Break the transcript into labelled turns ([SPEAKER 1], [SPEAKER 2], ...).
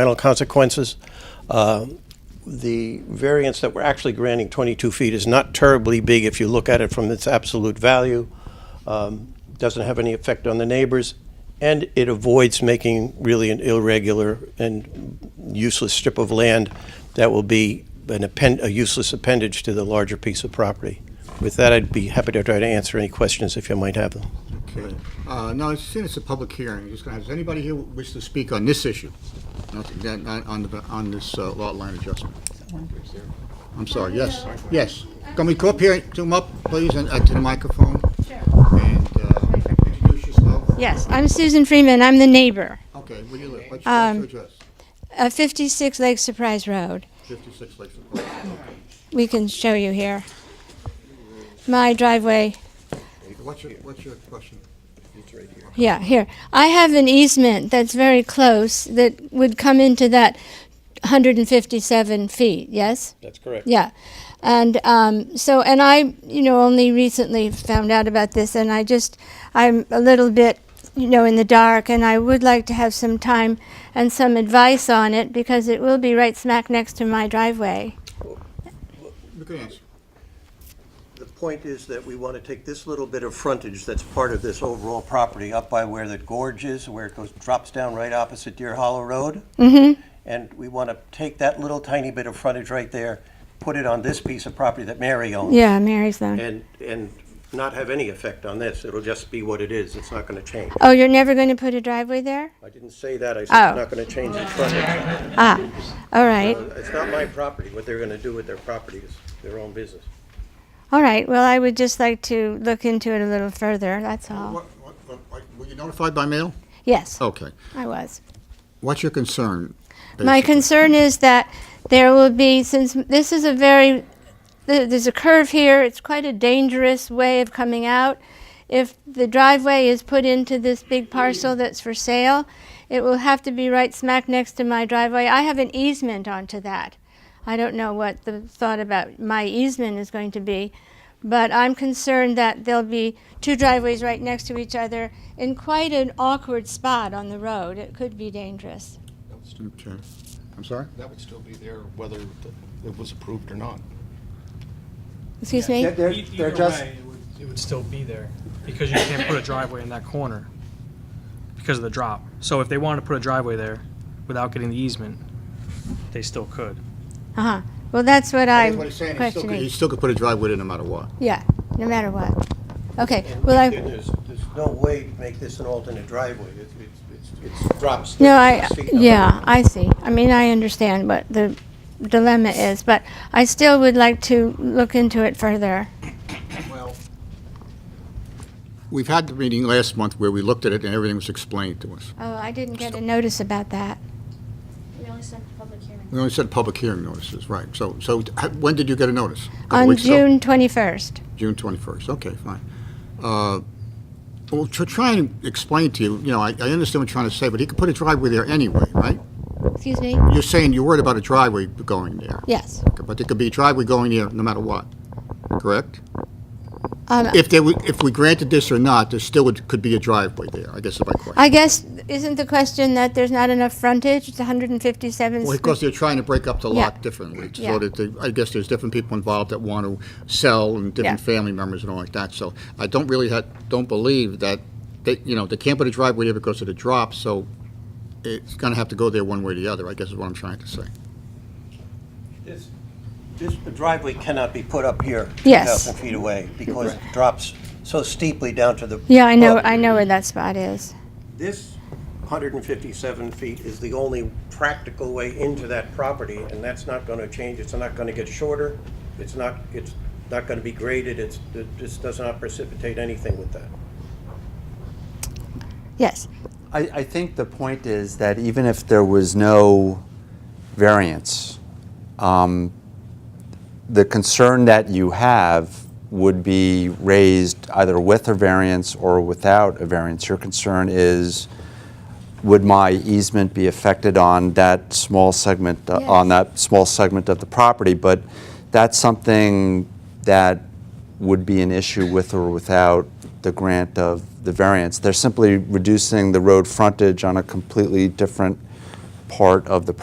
[SPEAKER 1] environmental consequences. Uh, The variance that we're actually granting, 22 feet, is not terribly big if you look at it from its absolute value. Um, Doesn't have any effect on the neighbors, and it avoids making really an irregular and useless strip of land that will be an append, a useless appendage to the larger piece of property. With that, I'd be happy to try to answer any questions if you might have them.
[SPEAKER 2] Okay. Uh, Now, since it's a public hearing, just gonna have, does anybody here wish to speak on this issue? Nothing, then, on- on, the- on this uh, lot line adjustment? I'm sorry, yes, yes. Can we come up here, zoom up, please, and, uh, to the microphone? And, uh, introduce yourself.
[SPEAKER 3] Yes, I'm Susan Freeman. I'm the neighbor.
[SPEAKER 2] Okay, where do you live? What's your- what's your address?
[SPEAKER 3] Uh, 56 Lake Surprise Road.
[SPEAKER 2] 56 Lakeshore Park.
[SPEAKER 3] We can show you here. My driveway.
[SPEAKER 2] What's your, what's your question?
[SPEAKER 3] Yeah, here. I have an easement that's very close that would come into that 157 feet, yes?
[SPEAKER 1] That's correct.
[SPEAKER 3] Yeah. And um, so, and I, you know, only recently found out about this, and I just, I'm a little bit, you know, in the dark, and I would like to have some time and some advice on it because it will be right smack next to my driveway.
[SPEAKER 2] You can answer.
[SPEAKER 1] The point is that we want to take this little bit of frontage that's part of this overall property up by where the gorge is, where it goes, drops down right opposite Deer Hollow Road. Mm-hmm. And we want to take that little tiny bit of frontage right there, put it on this piece of property that Mary owns.
[SPEAKER 3] Yeah, Mary's Loan.
[SPEAKER 1] And, and not have any effect on this. It'll just be what it is. It's not going to change.
[SPEAKER 3] Oh, you're never going to put a driveway there?
[SPEAKER 1] I didn't say that. I said it's
[SPEAKER 3] Oh.
[SPEAKER 1] not going to change the frontage.
[SPEAKER 3] All right.
[SPEAKER 1] It's not my property. What they're going to do with their property is their own business.
[SPEAKER 3] All right. Well, I would just like to look into it a little further. That's all.
[SPEAKER 2] What- what- what- Were you notified by mail?
[SPEAKER 3] Yes,
[SPEAKER 2] Okay.
[SPEAKER 3] I was.
[SPEAKER 2] What's your concern?
[SPEAKER 3] My
[SPEAKER 2] basically?
[SPEAKER 3] concern is that there will be, since this is a very, th- there's a curve here, it's quite a dangerous way of coming out. If the driveway is put into this big parcel that's for sale, it will have to be right smack next to my driveway. I have an easement onto that. I don't know what the thought about my easement is going to be, but I'm concerned that there'll be two driveways right next to each other in quite an awkward spot on the road. It could be dangerous.
[SPEAKER 2] Okay. I'm sorry?
[SPEAKER 4] That would still be there whether it was approved or not.
[SPEAKER 3] Excuse me?
[SPEAKER 5] They're, they're just. It would, it would still be there because you can't put a driveway in that corner because of the drop. So if they wanted to put a driveway there without getting the easement, they still could.
[SPEAKER 3] Uh-huh. Well, that's what I'm
[SPEAKER 2] That's what he's saying. He still could- He
[SPEAKER 3] questioning.
[SPEAKER 2] still could put a driveway in no matter what.
[SPEAKER 3] Yeah, no matter what. Okay, well, I,
[SPEAKER 1] There's, there's no way to make this an alternate driveway. It, it's, it's, it drops.
[SPEAKER 3] no, I,
[SPEAKER 1] 36 feet.
[SPEAKER 3] yeah, I see. I mean, I understand what the dilemma is, but I still would like to look into it further.
[SPEAKER 2] We've had the meeting last month where we looked at it and everything was explained to us.
[SPEAKER 3] Oh, I didn't get a notice about that.
[SPEAKER 6] We only sent the public hearing.
[SPEAKER 2] We only said public hearing notices, right. So, so h- when did you get a notice? A couple
[SPEAKER 3] On
[SPEAKER 2] weeks ago?
[SPEAKER 3] June 21st.
[SPEAKER 2] June 21st, okay, fine. Uh, Well, to try and explain to you, you know, I, I understand what you're trying to say, but he could put a driveway there anyway, right?
[SPEAKER 3] Excuse me?
[SPEAKER 2] You're saying you're worried about a driveway going there,
[SPEAKER 3] Yes.
[SPEAKER 2] but there could be a driveway going there no matter what, correct?
[SPEAKER 3] Um,
[SPEAKER 2] If there, were- if we granted this or not, there still would, could be a driveway there, I guess is my question.
[SPEAKER 3] I guess, isn't the question that there's not enough frontage? It's 157
[SPEAKER 2] Well,
[SPEAKER 3] square.
[SPEAKER 2] because they're trying to break up the
[SPEAKER 3] Yeah.
[SPEAKER 2] lot differently,
[SPEAKER 3] Yeah.
[SPEAKER 2] so that, they- I guess there's different people involved that want to sell, and different
[SPEAKER 3] Yeah.
[SPEAKER 2] family members and all like that, so I don't really, ha- don't believe that, they, you know, they can't put a driveway there because of the drop, so it's gonna have to go there one way or the other, I guess is what I'm trying to say.
[SPEAKER 1] This, this driveway cannot be put up here.
[SPEAKER 3] Yes.
[SPEAKER 1] 2,000 feet away because it drops so steeply down to the.
[SPEAKER 3] Yeah, I know, I
[SPEAKER 1] property.
[SPEAKER 3] know where that spot is.
[SPEAKER 1] This 157 feet is the only practical way into that property, and that's not going to change. It's not going to get shorter. It's not, it's not going to be graded. It's, it just does not precipitate anything with that.
[SPEAKER 3] Yes.
[SPEAKER 7] I, I think the point is that even if there was no variance, um, the concern that you have would be raised either with a variance or without a variance. Your concern is, would my easement be affected on that small segment, uh, on that small segment of the property? But that's something that would be an issue with or without the grant of the variance. They're simply reducing the road frontage on a completely different part of the